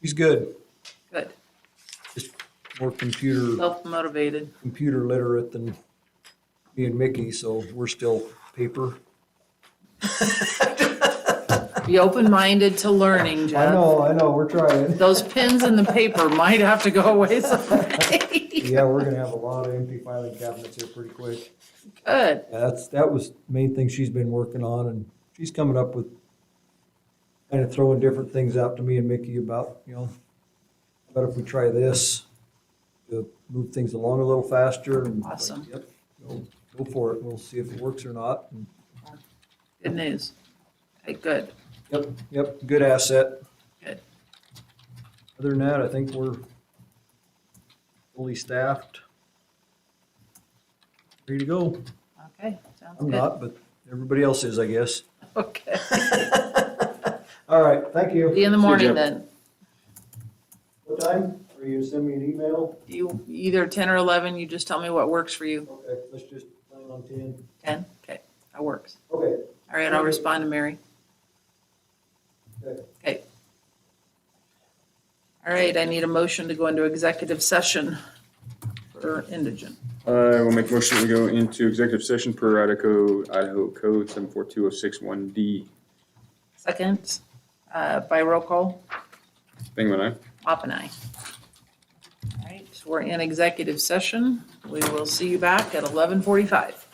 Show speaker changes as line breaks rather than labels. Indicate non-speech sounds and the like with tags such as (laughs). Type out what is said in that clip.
He's good.
Good,
More computer,
self-motivated.
computer literate than me and Mickey, so we're still paper.
Be open-minded to learning,
I
Jeff.
know, I know, we're
(laughs)
trying.
Those pins in the paper might have to go away someday.
Yeah, we're gonna have a lot of empty filing cabinets here pretty quick.
Good,
Yeah, that's, that was the main thing she's been working on and she's coming up with kind of throwing different things out to me and Mickey about, you know, but if we try this, to move things along a little faster and. like,
Awesome.
yep, Go go for it. We'll see if it works or not. And,
good news. Hey, good.
Yep, yep, good asset.
Good.
Other than that, I think we're fully staffed. Ready to go.
Okay, sounds
I'm
good.
not, but everybody else is, I guess. (laughs)
Okay.
All right, thank you.
See you in the
See you,
morning
Jeff.
then.
What time? Are you gonna send me an email?
You, either ten or eleven, you just tell me what works for you.
Okay, let's just plan on ten.
Ten? Okay, that works.
Okay.
All right, I'll respond to Mary.
Okay.
Okay. All right, I need a motion to go into executive session for indigent.
I will make a motion to go into executive session per Idaho, Idaho Code seven four two oh six one D.
Second, uh, by roll call,
Thingman, aye?
Mop and I. All right, so we're in executive session. We will see you back at 11:45.